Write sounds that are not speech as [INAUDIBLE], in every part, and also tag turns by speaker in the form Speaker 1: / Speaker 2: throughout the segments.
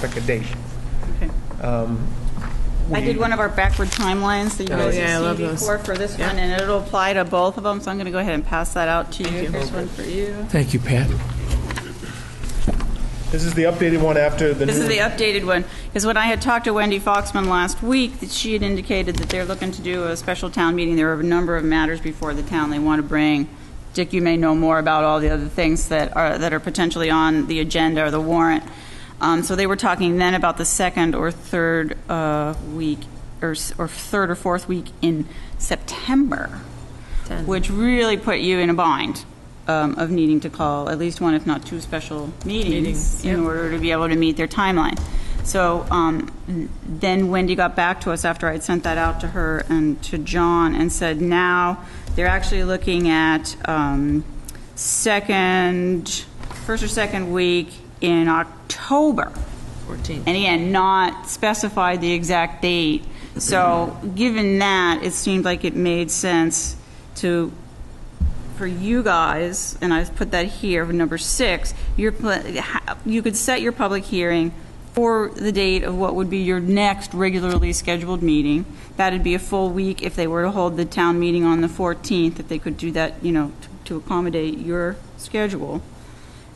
Speaker 1: pick a date.
Speaker 2: Okay.
Speaker 1: Um,
Speaker 2: I
Speaker 1: we-
Speaker 2: did one of our backward timelines that you
Speaker 1: Oh,
Speaker 2: guys
Speaker 1: yeah, I
Speaker 2: have
Speaker 3: love
Speaker 2: seen
Speaker 3: those.
Speaker 2: before for this
Speaker 3: Yeah.
Speaker 2: one, and it'll apply to both of them, so I'm going to go ahead and pass that out to you. Here's one for you.
Speaker 4: Thank you, Pat.
Speaker 1: This is the updated one after the new.
Speaker 2: This is the updated one, because when I had talked to Wendy Foxman last week, that she had indicated that they're looking to do a special town meeting. There are a number of matters before the town they want to bring. Dick, you may know more about all the other things that are, that are potentially on the agenda or the warrant. Um, So they were talking then about the second or third uh, week, or, s- or third or fourth week in September, which really put you in a bind um, of needing to call at least one, if not two, special meetings in order to be able to meet their timeline. So um, then Wendy got back to us after I'd sent that out to her and to John and said, now they're actually looking at um, second, first or second week in October.
Speaker 3: 14th.
Speaker 2: And again, not specified the exact date. So given that, it seemed like it made sense to for you guys, and I've put that here, number six, you're, pla- ha- you could set your public hearing for the date of what would be your next regularly scheduled meeting. That'd be a full week if they were to hold the town meeting on the 14th, if they could do that, you know, t- to accommodate your schedule.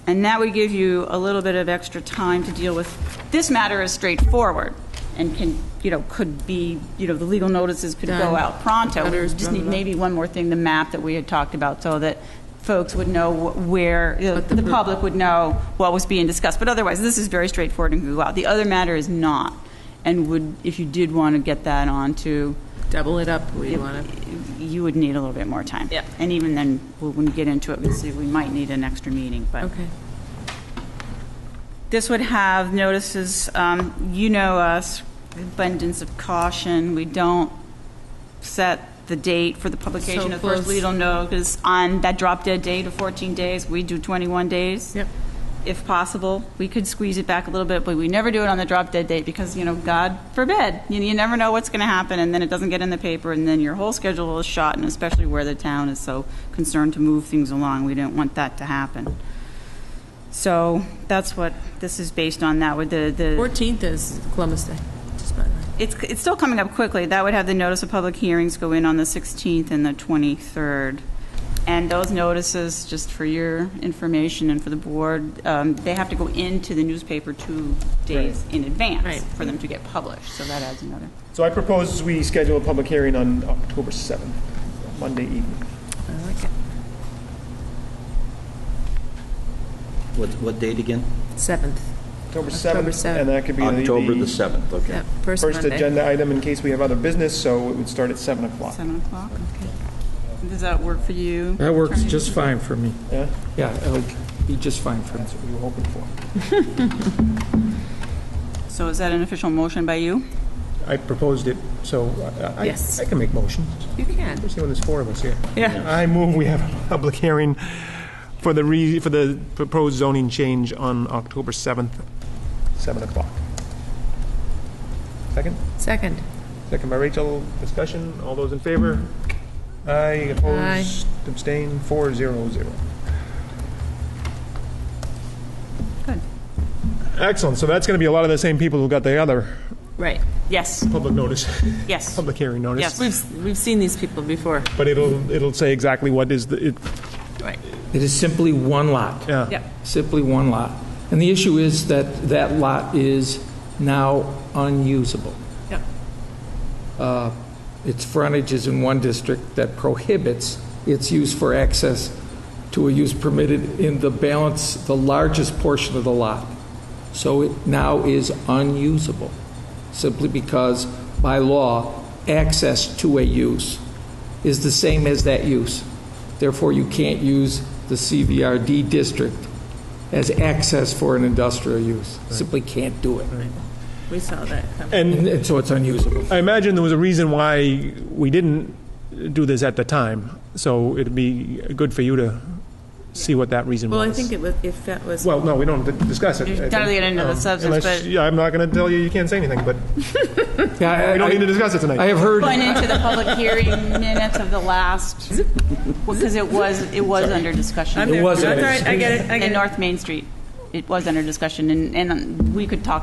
Speaker 2: And that would give you a little bit of extra time to deal with, this matter is straightforward and can, you know, could be, you know, the legal notices could go
Speaker 3: Done.
Speaker 2: out pronto. We
Speaker 3: Letters,
Speaker 2: just
Speaker 3: blah,
Speaker 2: need
Speaker 3: blah, blah.
Speaker 2: maybe maybe one more thing, the map that we had talked about, so that folks would know wh- where, the public would know what was being discussed. But otherwise, this is very straightforward and can go out. The other matter is not, and would, if you did want to get that on to,
Speaker 3: Double it up, we want to.
Speaker 2: you would need a little bit more time.
Speaker 3: Yeah.
Speaker 2: And even then, we'll- when we get into it, we'll see, we might need an extra meeting, but.
Speaker 3: Okay.
Speaker 2: This would have notices, um, you know us, abundance of caution, we don't set the date for the publication
Speaker 3: So
Speaker 2: of first
Speaker 3: close.
Speaker 2: legal notice on that drop dead date of 14 days, we do 21 days.
Speaker 3: Yep.
Speaker 2: If possible, we could squeeze it back a little bit, but we never do it on the drop dead date because, you know, God forbid, you, you never know what's going to happen and then it doesn't get in the paper and then your whole schedule is shot and especially where the town is so concerned to move things along, we don't want that to happen. So that's what this is based on, that with the, the,
Speaker 3: 14th is Columbus Day, just by the way.
Speaker 2: it's, it's still coming up quickly. That would have the notice of public hearings go in on the 16th and the 23rd. And those notices, just for your information and for the board, um, they have to go into the newspaper two days in
Speaker 3: Right.
Speaker 2: advance for them to get published, so that adds another.
Speaker 1: So I propose we schedule a public hearing on October 7th, Monday evening.
Speaker 3: I like it.
Speaker 5: What, what date again?
Speaker 3: 7th.
Speaker 1: October
Speaker 3: October
Speaker 1: 7th.
Speaker 3: 7th.
Speaker 1: And that could be
Speaker 5: October the
Speaker 1: the
Speaker 5: 7th, okay.
Speaker 3: Yep, first Monday.
Speaker 1: first agenda item in case we have other business, so it would start at 7 o'clock.
Speaker 2: 7 o'clock? Does that work for you?
Speaker 4: That works
Speaker 2: Attorney?
Speaker 4: just fine for me.
Speaker 1: Yeah?
Speaker 4: Yeah, it'll be just fine for me.
Speaker 1: That's what we were hoping for.
Speaker 2: So is that an official motion by you?
Speaker 1: I proposed it, so I- I
Speaker 3: Yes.
Speaker 1: I can make motions.
Speaker 3: You can.
Speaker 1: Especially when there's four of us here.
Speaker 3: Yeah.
Speaker 1: I move we have a public hearing for the re, for the proposed zoning change on October 7th, 7 o'clock. Second?
Speaker 3: Second.
Speaker 1: Second by Rachel. Discussion. All those in favor? Aye. Opposed? Abstain? Four zero zero.
Speaker 2: Good.
Speaker 1: Excellent. So that's going to be a lot of the same people who got the other
Speaker 3: Right.
Speaker 2: Yes,
Speaker 1: public notice, [LAUGHS]
Speaker 2: yes.
Speaker 1: public hearing notice.
Speaker 2: Yes.
Speaker 3: We've, we've seen these people before.
Speaker 1: But it'll, it'll say exactly what is the, it,
Speaker 3: Right.
Speaker 4: It is simply one lot,
Speaker 1: yeah.
Speaker 4: simply one lot. And the issue is that that lot is now unusable.
Speaker 3: Yep.
Speaker 4: Uh, Its frontage is in one district that prohibits its use for access to a use permitted in the balance, the largest portion of the lot. So it now is unusable, simply because by law, access to a use is the same as that use. Therefore, you can't use the CVRD district as access for an industrial use. Simply can't do it.
Speaker 3: We saw that coming.
Speaker 1: And
Speaker 4: And and so it's unusable.
Speaker 1: I imagine there was a reason why we didn't do this at the time, so it'd be good for you to see what that reason was.
Speaker 3: Well, I think it was, if that was.
Speaker 1: Well, no, we don't discuss it. I think.
Speaker 2: Entirely into the
Speaker 1: Um,
Speaker 2: substance,
Speaker 1: unless-
Speaker 2: but-
Speaker 1: Yeah, I'm not going to tell you, you can't say anything, but we don't need to discuss it
Speaker 4: I
Speaker 1: tonight.
Speaker 4: have heard,
Speaker 2: Went into the public hearing minutes of the last, because it was, it was under
Speaker 3: I'm
Speaker 2: discussion.
Speaker 3: there.
Speaker 4: was-
Speaker 3: That's all right, I get it, I get
Speaker 2: In
Speaker 3: it.
Speaker 2: North Main Street, it was under discussion, and, and we could talk